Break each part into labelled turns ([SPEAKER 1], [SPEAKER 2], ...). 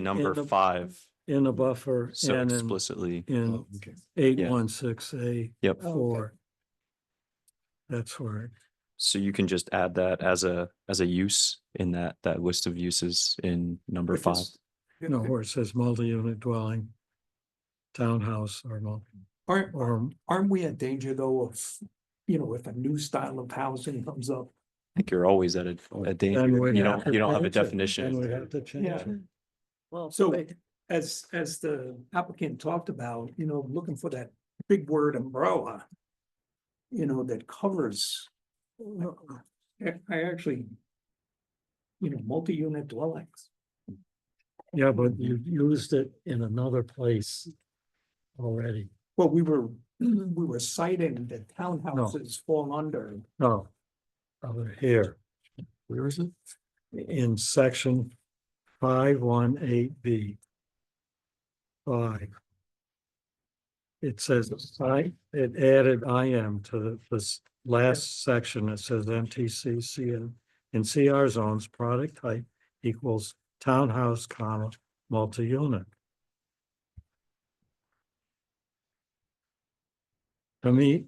[SPEAKER 1] number
[SPEAKER 2] the-
[SPEAKER 1] five
[SPEAKER 2] in the buffer
[SPEAKER 1] so
[SPEAKER 2] and in,
[SPEAKER 1] explicitly.
[SPEAKER 2] in
[SPEAKER 3] Oh, okay.
[SPEAKER 2] eight one six A
[SPEAKER 1] Yep.
[SPEAKER 3] Oh, okay.
[SPEAKER 2] four. That's where,
[SPEAKER 1] So you can just add that as a, as a use in that, that list of uses in number
[SPEAKER 3] Which
[SPEAKER 1] five.
[SPEAKER 3] is-
[SPEAKER 2] you know, where it says multi-unit dwelling, townhouse or multi,
[SPEAKER 3] Aren't,
[SPEAKER 2] or
[SPEAKER 3] aren't we in danger though of, you know, if a new style of housing comes up?
[SPEAKER 1] I think you're always at a, a danger.
[SPEAKER 2] Oh, Then we'd
[SPEAKER 1] You
[SPEAKER 2] have
[SPEAKER 1] don't,
[SPEAKER 2] to
[SPEAKER 1] you don't have a
[SPEAKER 2] change it. Then
[SPEAKER 1] definition.
[SPEAKER 2] we'd have to change
[SPEAKER 3] Yeah.
[SPEAKER 2] it.
[SPEAKER 4] Well,
[SPEAKER 3] So-
[SPEAKER 4] wait,
[SPEAKER 3] As, as the applicant talked about, you know, looking for that big word umbrella. You know, that covers. uh, I, I actually. You know, multi-unit dwellings.
[SPEAKER 2] Yeah, but you used it in another place already.
[SPEAKER 3] Well, we were, we were citing that townhouses fall under.
[SPEAKER 2] No. Over Oh, here. Where is it? In section five one eight B. Five. It says, I, it added I M to the- this last section. It says MTC CN. In CR zones, product type equals townhouse, comma, multi-unit. To me,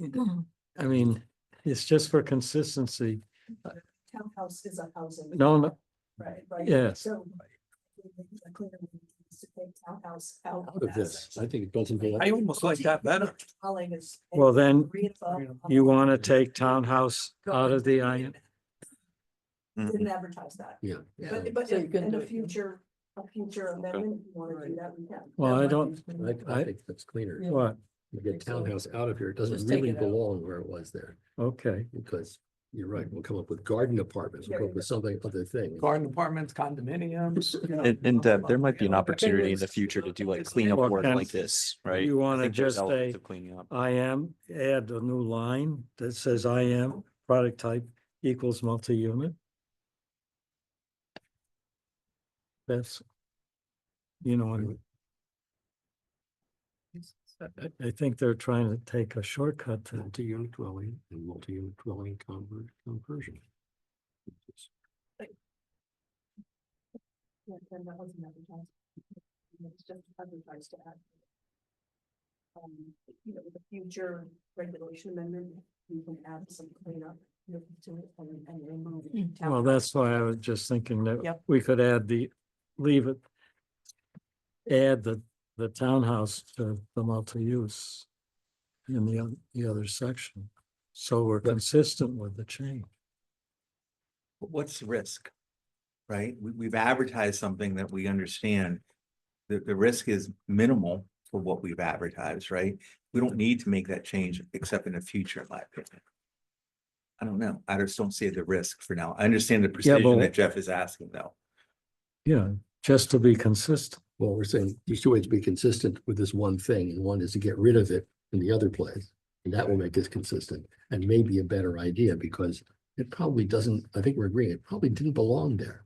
[SPEAKER 2] I mean, it's just for consistency.
[SPEAKER 5] townhouse is a housing.
[SPEAKER 2] No, no,
[SPEAKER 5] Right, right.
[SPEAKER 2] yes.
[SPEAKER 5] So. a cleaner way is to take Townhouse out.
[SPEAKER 4] Oh,
[SPEAKER 6] out of
[SPEAKER 5] that
[SPEAKER 6] this.
[SPEAKER 5] section.
[SPEAKER 6] I think it doesn't belong.
[SPEAKER 3] I almost like that better.
[SPEAKER 5] Dwelling is.
[SPEAKER 2] well, then
[SPEAKER 5] Three and above.
[SPEAKER 2] you want to take townhouse out of the I,
[SPEAKER 5] Didn't
[SPEAKER 1] Mhm.
[SPEAKER 5] advertise that,
[SPEAKER 6] Yeah.
[SPEAKER 5] but, but
[SPEAKER 4] So you
[SPEAKER 5] in
[SPEAKER 4] can
[SPEAKER 5] in
[SPEAKER 4] do
[SPEAKER 5] a
[SPEAKER 4] it.
[SPEAKER 5] future, a future amendment, if you wanna do that, we can.
[SPEAKER 2] Well,
[SPEAKER 5] That
[SPEAKER 2] I
[SPEAKER 5] might
[SPEAKER 2] don't-
[SPEAKER 5] be-
[SPEAKER 6] I, I think that's cleaner.
[SPEAKER 2] what?
[SPEAKER 6] You get townhouse out of here. It
[SPEAKER 4] Just
[SPEAKER 6] doesn't
[SPEAKER 4] take
[SPEAKER 6] really
[SPEAKER 4] it out.
[SPEAKER 6] belong where it was there
[SPEAKER 2] Okay,
[SPEAKER 6] because you're right. We'll come up with garden apartments. We'll come up with something, other thing.
[SPEAKER 3] Garden apartments, condominiums. you know,
[SPEAKER 1] And, and Deb, there might be an
[SPEAKER 3] you know,
[SPEAKER 1] opportunity in the
[SPEAKER 3] things,
[SPEAKER 1] future
[SPEAKER 3] you
[SPEAKER 1] to
[SPEAKER 3] know,
[SPEAKER 1] do like
[SPEAKER 3] things
[SPEAKER 1] cleanup
[SPEAKER 2] Well,
[SPEAKER 1] work
[SPEAKER 2] can-
[SPEAKER 1] like this, right?
[SPEAKER 2] you
[SPEAKER 1] I
[SPEAKER 2] wanna
[SPEAKER 1] think there's
[SPEAKER 2] just
[SPEAKER 1] elements
[SPEAKER 2] say-
[SPEAKER 1] of Cleaning up.
[SPEAKER 2] I am, add a new line that says I am product type equals multi-unit. That's, you know, and I think they're trying to take a shortcut to,
[SPEAKER 6] Multi-unit dwelling and multi-unit dwelling convert, conversion.
[SPEAKER 5] Yeah, and that wasn't advertised. It's just advertised to add. Um, you know, with a future regulation amendment, you can add some cleanup, you know, to it and, and remove. town
[SPEAKER 2] well, that's why I was just thinking that
[SPEAKER 5] Yep.
[SPEAKER 2] we could add the, leave it. Add the, the townhouse to the multi-use in the, oth- the other section. So we're
[SPEAKER 6] But-
[SPEAKER 2] consistent with the change.
[SPEAKER 7] But what's the risk? Right? We, we've advertised something that we understand. The, the risk is minimal for what we've advertised, right? We don't need to make that change except in the future, in my opinion. I don't know. I just don't see the risk for now. I understand the
[SPEAKER 2] but-
[SPEAKER 7] precision that Jeff is asking though.
[SPEAKER 2] Yeah, just to be consistent.
[SPEAKER 6] Well, we're saying there's two ways to be consistent with this one thing, and one is to get rid of it in the other place. And that will make us consistent and maybe a better idea because it probably doesn't, I think we're agreeing, it probably didn't belong there.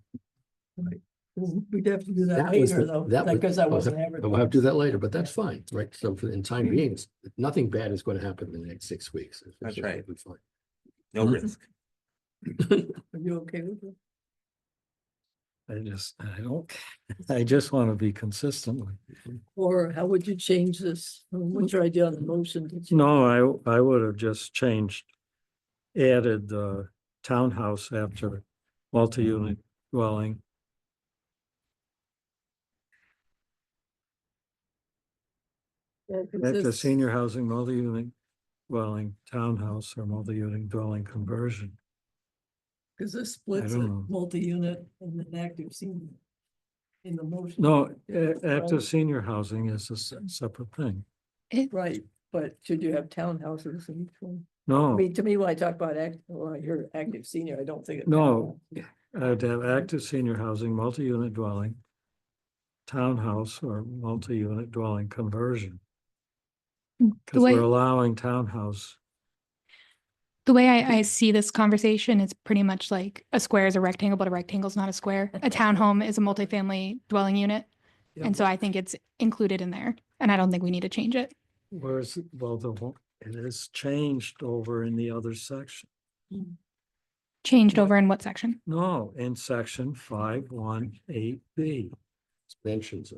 [SPEAKER 4] we definitely do that
[SPEAKER 6] That was,
[SPEAKER 4] later
[SPEAKER 6] the-
[SPEAKER 4] though,
[SPEAKER 6] that was.
[SPEAKER 4] because I
[SPEAKER 6] oh,
[SPEAKER 4] wasn't
[SPEAKER 6] that-
[SPEAKER 4] ever.
[SPEAKER 6] We'll have to do that later, but that's fine, right? So for in time being, it's- nothing bad is going to happen in the next six weeks. It's- it's
[SPEAKER 7] Mm-hmm. That's
[SPEAKER 6] just
[SPEAKER 7] right.
[SPEAKER 6] gonna be fine.
[SPEAKER 7] No
[SPEAKER 6] Mhm.
[SPEAKER 7] risk.
[SPEAKER 4] Are you okay with it?
[SPEAKER 2] I just, I don't, I just want to be consistent. with
[SPEAKER 4] Or how would you change this? What's your idea on the motion? Did you-
[SPEAKER 2] No, I, I would have just changed, added the townhouse after multi-unit dwelling.
[SPEAKER 4] Yeah,
[SPEAKER 2] After
[SPEAKER 4] this-
[SPEAKER 2] senior housing, multi-unit dwelling, townhouse or multi-unit dwelling conversion.
[SPEAKER 4] Cause this splits
[SPEAKER 2] don't
[SPEAKER 4] a
[SPEAKER 2] know.
[SPEAKER 4] multi-unit and an active senior. In the motion.
[SPEAKER 2] No, a- active
[SPEAKER 4] Right.
[SPEAKER 2] senior housing is a s- separate thing.
[SPEAKER 4] Right, but should you have townhouses in each one? I
[SPEAKER 2] No,
[SPEAKER 4] mean, to me, when I talk about act, when I hear active senior, I don't think. of
[SPEAKER 2] No.
[SPEAKER 4] townhouse.
[SPEAKER 2] I'd uh, have active senior housing, multi-unit dwelling, townhouse or multi-unit dwelling conversion. Because
[SPEAKER 8] The way,
[SPEAKER 2] we're allowing townhouse.
[SPEAKER 8] the way I, I see this conversation is pretty much like a square is a rectangle, but a rectangle is not a square. A townhome is a multifamily dwelling unit.
[SPEAKER 2] Yeah,
[SPEAKER 8] And so I think it's included in there and I don't think we need to change it.
[SPEAKER 2] Whereas, well, the, one- it is changed over in the other section.
[SPEAKER 8] Changed over in what section?
[SPEAKER 2] No, in section five, one, eight, B. expansions